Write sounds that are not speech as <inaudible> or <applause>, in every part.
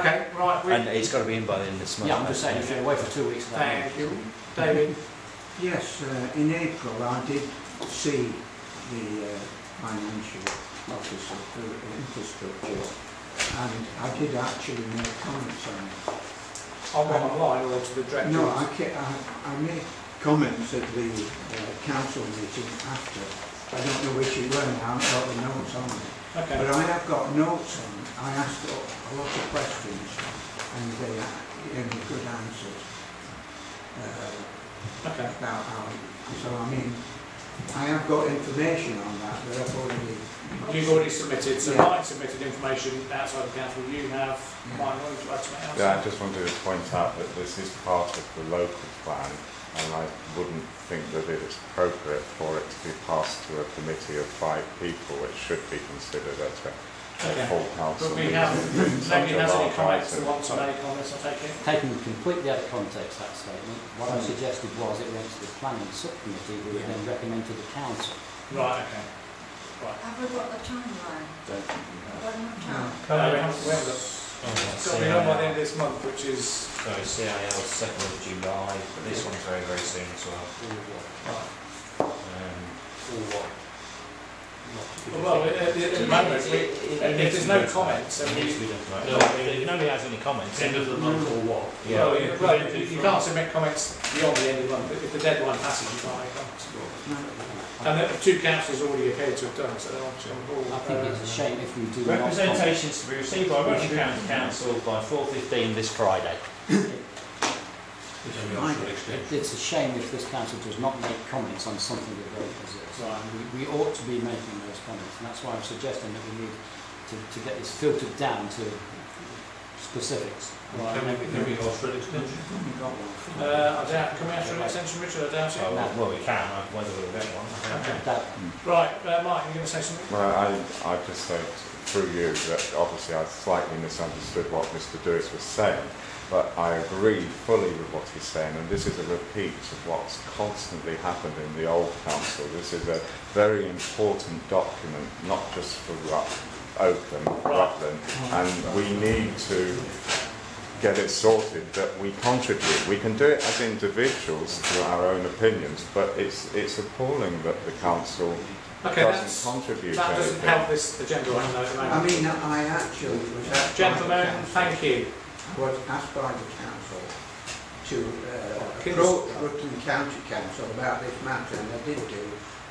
Okay, right, we, And it's got to be in by the end of this month. Yeah, I'm just saying, if you're away for two weeks, then thank you. David, Yes, uh, in April I did see the uh, financial officer for infrastructure and I did actually make comments on it. on the line or to the directors? No, I, ca- I, I made comments at the uh, council meeting after. I don't know which it were now, I've got the notes on it. But Okay, I have got notes on it. I asked a a lot of questions and they gave me good answers. Uh, okay, about how, so I mean, I have got information on that, but I've already. you've already submitted, so Yeah. Mike submitted information outside the council, you have, Yeah. Mike, would you like to make Yeah, I just wanted to point out that this is part of the local plan, and I wouldn't think that it is appropriate for it to be passed to a committee of five people, which should be considered at a, a Okay. full But council we meeting. have, It's such nobody a has any large comments they item. want to make on this, I take it? taken completely out of context, that statement, what Hmm. I suggested was it went to the planning subcommittee, who would then recommend to the council. Right, okay. Have we got the timeline? One No. more time? Uh, we haven't, we haven't got, it's got to be done by the end of this month, which is, So CIL second of July, but this one's very very soon as well. Um, well, at, at the moment, we, if there's no comments, then it needs we, to be done tonight. No, if nobody has any comments, end of the month or what? Yeah. well, you- well, you you can't submit comments beyond the end of the month, but if the deadline passes, you can't make comments. And the two councils already appear to have done, so they're obviously on board. I think it's a Uh, shame if we do not. Representations to be received by Rutland County Council by four fifteen this Friday. It's a shame if this council does not make comments on something that they possess. Right. And we, we ought to be making those comments, and that's why I'm suggesting that we need to, to get this filtered down to specifics. Right. Haven't got one. Uh, I doubt, can we ask for an extension, Richard? I doubt it. Oh, well, well, we can. uh, Whether we'll get one. I don't know. That, Right, uh, Mike, you going to say something? Well, I, I just said through you that obviously I slightly misunderstood what Mr. Dewis was saying, but I agree fully with what he's saying, and this is a repeat of what's constantly happened in the old council. This is a very important document, not just for Rut- Oakland, Rutland, and we need to get it sorted that we contribute. We can do it as individuals to our own opinions, but it's, it's appalling that the council Okay, that's, doesn't contribute that doesn't anything. help this agenda item though, at the I moment. mean, I actually was asked. by the Gentlemen, council- thank you. Was asked by the council to uh, Can- approach Rutland County Council about this matter and I did do,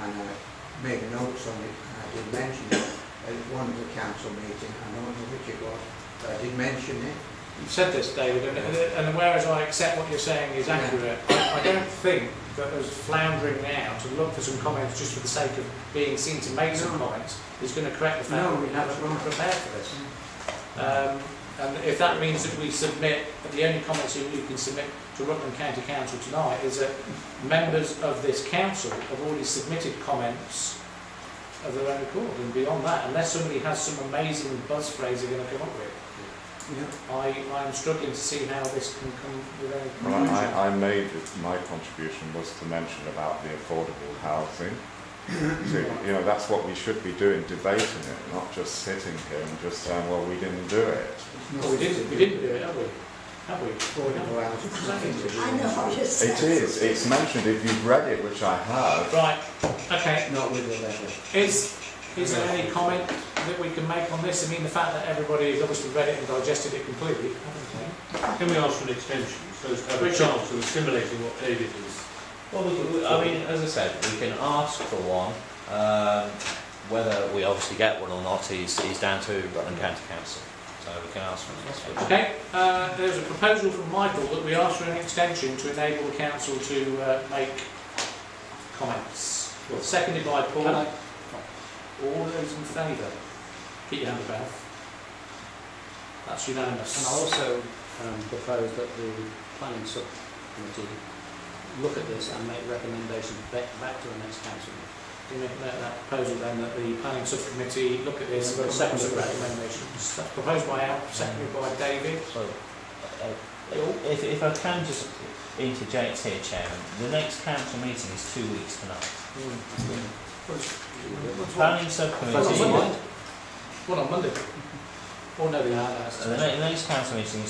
and I made notes on it, and I did mention it at one of the council meetings, I don't know which it was, but I did mention it. You've said this, David, and, and and whereas I accept what you're saying is accurate, I I don't think that us floundering now to look for some comments just for the sake of being seen to make some No. comments is going to correct the fact No, that we that's haven't right. prepared for this. Um, and if that means that we submit, the only comments that you can submit to Rutland County Council tonight is that members of this council have already submitted comments of their own accord, and beyond that, unless somebody has some amazing buzz phrase they're going to come up with, Yeah. I, I'm struggling to see how this can come with any Well, conclusion. I, I made, it- my contribution was to mention about the affordable <coughs> housing. To- You know, that's what we should be doing, debating it, not just sitting here and just saying, well, we didn't do it. Well, we didn't, we didn't do it, have we? Have we? Affordable housing. Exactly. I know what you're saying. It is, it's mentioned, if you've read it, which I have, Right, okay. Not with the letter. Is, is there any comment that we can make on this? I mean, the fact that everybody has obviously read it and digested it completely, haven't Can we ask for an extension, so as to have a Richard. chance of assimilating what David is? Well, we, we- I mean, as I said, we can ask for one. Um, whether we obviously get one or not is, is down to Rutland County Council. So we can ask for an we? extension. Okay, uh, there's a proposal from Michael that we ask for an extension to enable the council to, uh, make comments. Seconded by Paul. Can I- All those in favour? Keep your hand about. That's unanimous. And I also um, propose that the planning subcommittee look at this and make recommendations back, back to the next council. meeting. Do you make that, that proposal then that the planning subcommittee look at this and come up with recommendations? That's proposed by Al, seconded by David. So, uh, if, if I can just interject here, Chairman, the next council meeting is two weeks tonight. What's- what's- Planning What's on subcommittee, Monday? What on Monday? Oh, no, they aren't. that's- So the ne- the next council meeting is